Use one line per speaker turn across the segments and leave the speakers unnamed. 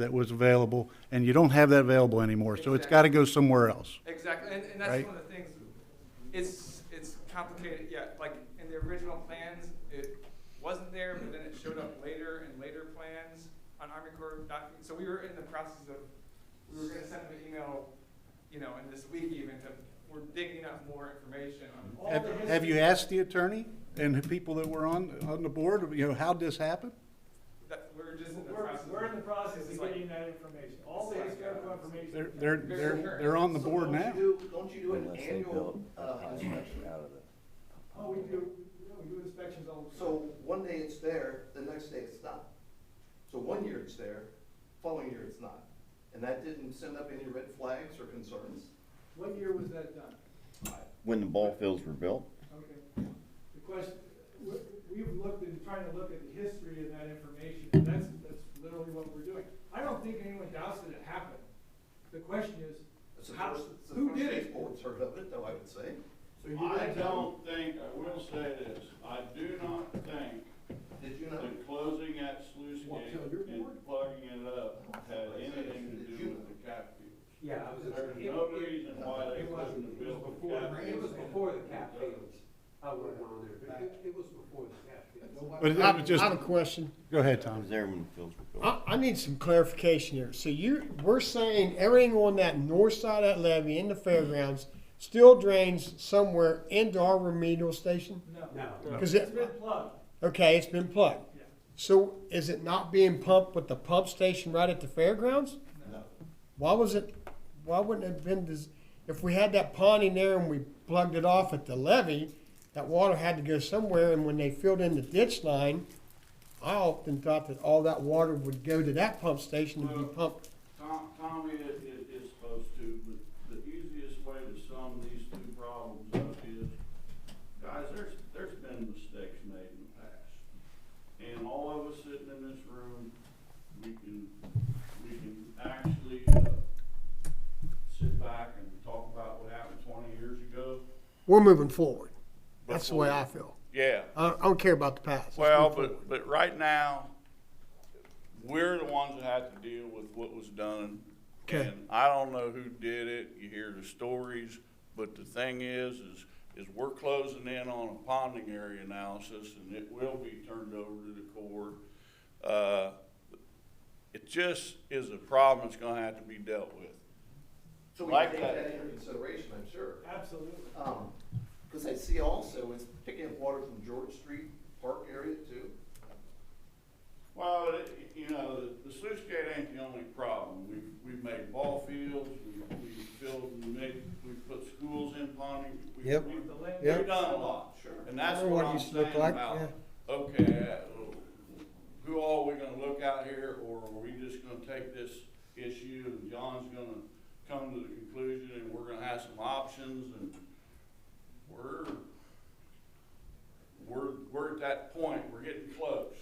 that was available, and you don't have that available anymore, so it's gotta go somewhere else.
Exactly, and, and that's
Right.
one of the things, it's, it's complicated, yeah, like, in the original plans, it wasn't there, but then it showed up later in later plans on Army Corps doc, so we were in the process of, we were gonna send them an email, you know, in this week even, to, we're digging up more information on all
Have,
the history.
have you asked the attorney and the people that were on, on the board, you know, how'd this happen?
That, we're just in the
We're,
process.
we're in the process
It's
of
like-
getting that information, all the
uh,
historical information.
They're, they're, they're, they're on the
So
board
don't you
now.
do- Don't you do an
Unless they
annual
build a
uh,
house
inspection?
out of it.
Oh, we do, yeah, we do inspections all the time.
So one day it's there, the next day it's not. So one year it's there, following year it's not. And that didn't send up any red flags or concerns?
What year was that done?
When the ball fields were built,
Okay. The question, we, we've looked and trying to look at the history of that information, and that's, that's literally what we're doing. I don't think anyone doubts that it happened. The question
It's
is,
the
how,
first, it's the
who
first
did
these
it?
boards heard of it, though, I would say. So you
I
did tell
don't think, I will say this, I do not think
them. Did you not?
that closing that sluice
Well,
gate
tell your
and
board.
plugging it up had anything to do with the cap fields.
Yeah, I was,
There's
it,
no
it,
reason why they
it was,
couldn't have
it was
built the
before,
cap fields.
it was before the cap fields, I went on there, but it, it was before the cap fields.
But it- it was just,
I have a question.
go ahead,
I
Tom.
was there when the fields were built.
I, I need some clarification here. So you, we're saying everything on that north side of that levee in the fairgrounds still drains somewhere into our remedial station?
No.
No,
Because
It's
it,
been plugged.
okay, it's been plugged.
Yeah.
So is it not being pumped with the pump station right at the fairgrounds?
No.
Why was it, why wouldn't it have been, des- if we had that pond in there and we plugged it off at the levee, that water had to go somewhere, and when they filled in the ditch line, I often thought that all that water would go to that pump station and be pumped.
Tom, Tommy is, is, is supposed to, but the easiest way to sum these two problems up is, guys, there's, there's been mistakes made in the past. And all of us sitting in this room, we can, we can actually, uh, sit back and talk about what happened twenty years ago.
We're moving forward. That's the way I feel.
Yeah,
I, I don't care about the past. Let's
well,
move forward.
but, but right now, we're the ones that have to deal with what was done.
Okay.
And I don't know who did it, you hear the stories, but the thing is, is, is we're closing in on a ponding area analysis and it will be turned over to the Corps. Uh, it just is a problem that's gonna have to be dealt with.
So we
Like
take
that.
that into consideration, I'm sure.
Absolutely.
Because I see also it's picking up water from George Street Park area too.
Well, it- you know, the- the sluice gate ain't the only problem. We've, we've made ball fields, we- we've filled, and made, we've put schools in Pawnee. We-
Yep.
we-
The land-
Yep.
We've done a lot,
Sure.
and that's
Remember what
what
it
I'm
used to look
saying
like,
about,
yeah.
okay, uh, who all we gonna look out here, or are we just gonna take this issue and John's gonna come to the conclusion and we're gonna have some options and we're, we're, we're at that point, we're getting close.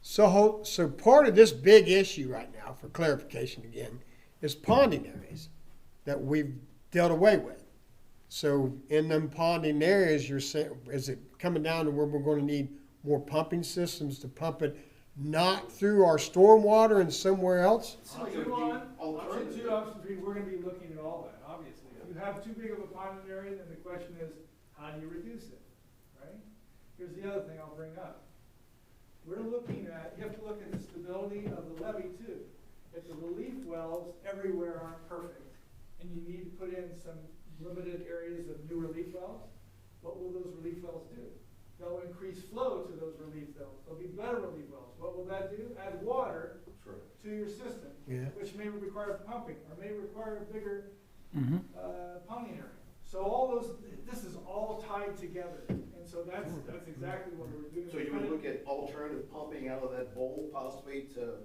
So, ho- so part of this big issue right now, for clarification again, is ponding areas that we've dealt away with. So in them ponding areas, you're saying, is it coming down to where we're gonna need more pumping systems to pump it not through our stormwater and somewhere else?
Option one, option two, option three, we're gonna be looking at all that, obviously. If you have too big of a pond in an area, then the question is, how do you reduce it, right? Here's the other thing I'll bring up. We're looking at, you have to look at the stability of the levee too. If the relief wells everywhere aren't perfect, and you need to put in some limited areas of new relief wells, what will those relief wells do? They'll increase flow to those relief wells, there'll be better relief wells. What will that do? Add water
Sure.
to your system,
Yeah.
which may require pumping or may require a bigger uh, pumping area. So all those, this is all tied together, and so that's, that's exactly what we're doing.
So you would look at alternative pumping out of that bowl possibly to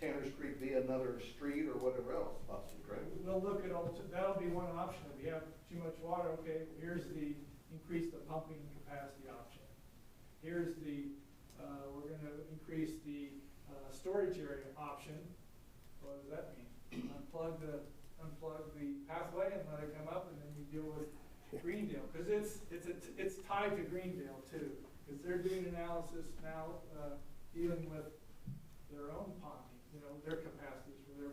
Tanner's Creek via another street or whatever else possibly, correct?
We'll look at all, that'll be one option, if you have too much water, okay, here's the, increase the pumping capacity option. Here's the, uh, we're gonna increase the, uh, storage area option, what does that mean? Unplug the, unplug the pathway and let it come up, and then you deal with Greendale, cause it's, it's, a- it's tied to Greendale too, cause they're doing analysis now, uh, dealing with their own ponding, you know, their capacities for their